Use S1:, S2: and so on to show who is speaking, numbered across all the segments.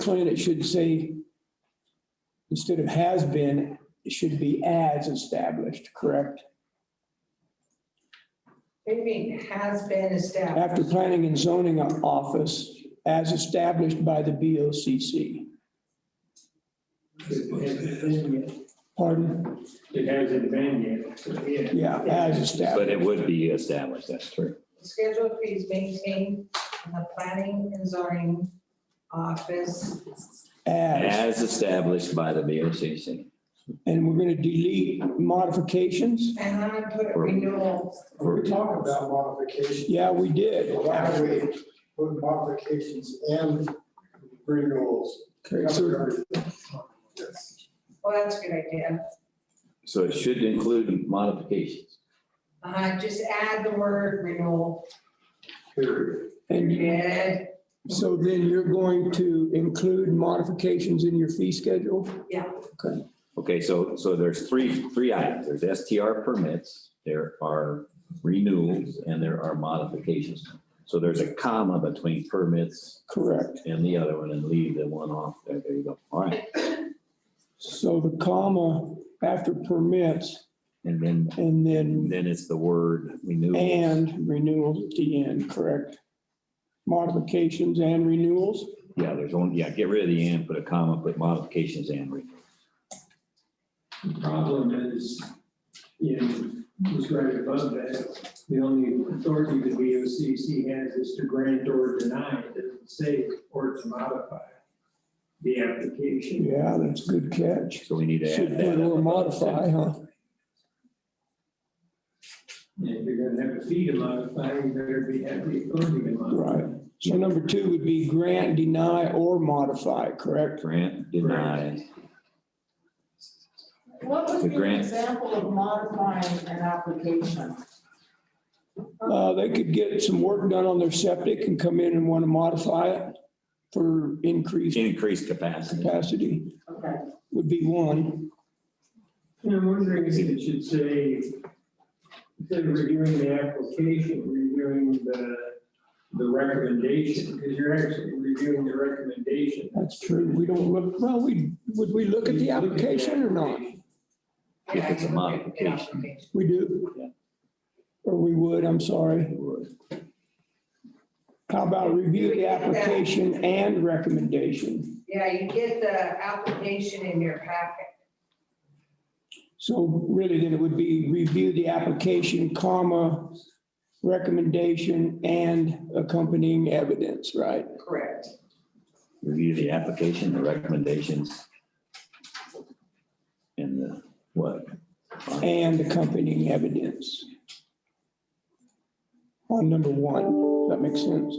S1: plan, it should say, instead of has been, it should be as established, correct?
S2: What do you mean, has been established?
S1: After planning and zoning office, as established by the BOCC. Pardon?
S3: It hasn't been yet, yeah.
S1: Yeah, as
S4: But
S1: established.
S4: it would be established, that's true.
S2: Schedule of fees maintained in the planning and zoning office.
S1: As,
S4: As established by the VOCC
S1: and we're going to delete modifications?
S2: And I'm gonna put renewal,
S4: for
S5: We talked about modifications.
S1: Yeah, we did.
S5: Why do we put modifications and renewals?
S1: Okay, so
S5: Yes.
S2: well, oh, that's a good idea.
S4: So it should include modifications.
S2: Uh, just add the word renewal,
S5: Period.
S1: And
S2: period.
S1: so then you're going to include modifications in your fee schedule?
S2: Yeah.
S1: Okay.
S4: Okay, so, so there's three, three items. There's STR permits, there are renewals, and there are modifications. So there's a comma between permits
S1: Correct.
S4: and the other one and leave the one off. There there you go. All right.
S1: So the comma after permits
S4: And then,
S1: and then
S4: then it's the word renewal.
S1: and renewals at the end, correct? Modifications and renewals?
S4: Yeah, there's only, yeah, get rid of the and, put a comma, put modifications and renewals.
S3: The Problem is, in, was right above that, the only authority the VOCC has is to grant or deny, it doesn't say or to modify the application.
S1: Yeah, that's a good catch.
S4: So we need to
S1: Should
S4: add
S1: put
S4: that.
S1: or
S4: up.
S1: modify, huh?
S3: And if you're gonna have a fee to modify, you better be happy authority to modify.
S1: Right. So number two would be grant, deny, or modify, correct?
S4: Grant denied.
S6: What
S4: The
S6: would be an
S4: grant.
S6: example of modifying an application?
S1: Uh, they could get some work done on their septic and come in and want to modify it for increased
S4: Increased capacity.
S1: capacity
S6: Okay.
S1: would be one.
S3: And I'm wondering if it should say, instead of reviewing the application, reviewing the, the recommendation, because you're actually reviewing the recommendation.
S1: That's true. We don't look, well, we, would we look at the application or not?
S4: If it's a
S2: Yeah,
S4: modification.
S2: yeah,
S1: We do.
S4: Yeah.
S1: Or we would, I'm sorry. How about review the application and recommendation?
S2: Yeah, you get the application in your packet.
S1: So really then it would be review the application, comma, recommendation and accompanying evidence, right?
S2: Correct.
S4: Review the application, the recommendations. And the, what?
S1: And accompanying evidence. On number one, that makes sense.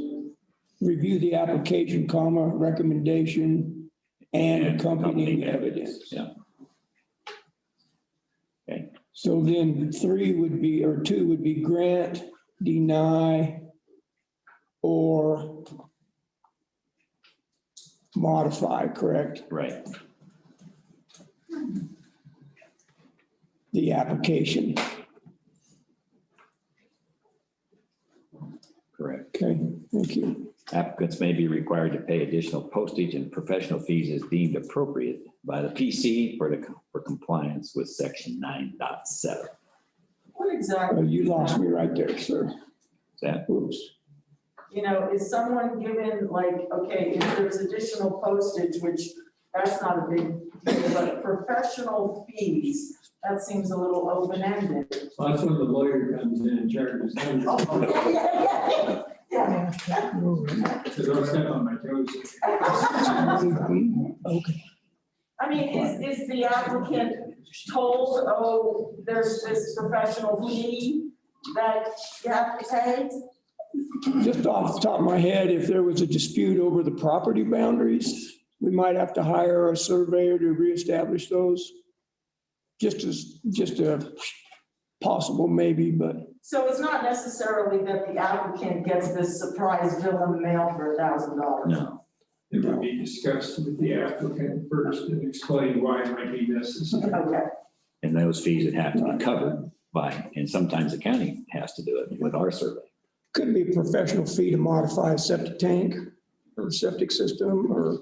S1: Review the application, comma, recommendation and accompanying evidence.
S4: Yeah,
S1: So then three would be, or two would be grant, deny, or modify, correct,
S4: right.
S1: the application,
S4: Correct.
S1: okay, thank you.
S4: Applicants may be required to pay additional postage and professional fees as deemed appropriate by the PC for the, for compliance with section 9.7. Is
S6: What
S1: Oh,
S6: exactly,
S1: You lost me right there, sir,
S4: that,
S1: oops.
S6: you know, is someone given like, okay, if there's additional postage, which that's not a big deal, but professional fees, that seems a little open-ended.
S3: Well, That's when the lawyer comes in and charges them. So
S6: Yeah, yeah,
S3: don't step on my toes.
S6: yeah.
S1: Okay,
S6: I mean, is, is the applicant told, oh, there's this professional fee that you have to pay?
S1: just off the top of my head, if there was a dispute over the property boundaries, we might have to hire a surveyor to reestablish those. Just as, just a possible maybe, but
S6: So it's not necessarily that the applicant gets this surprise bill in the mail for a thousand dollars.
S4: no,
S3: It would be discussed with the applicant first and explain why it might be necessary.
S6: Okay,
S4: and those fees would have to be covered by, and sometimes the county has to do it with our survey.
S1: Could be a professional fee to modify a septic tank or septic system or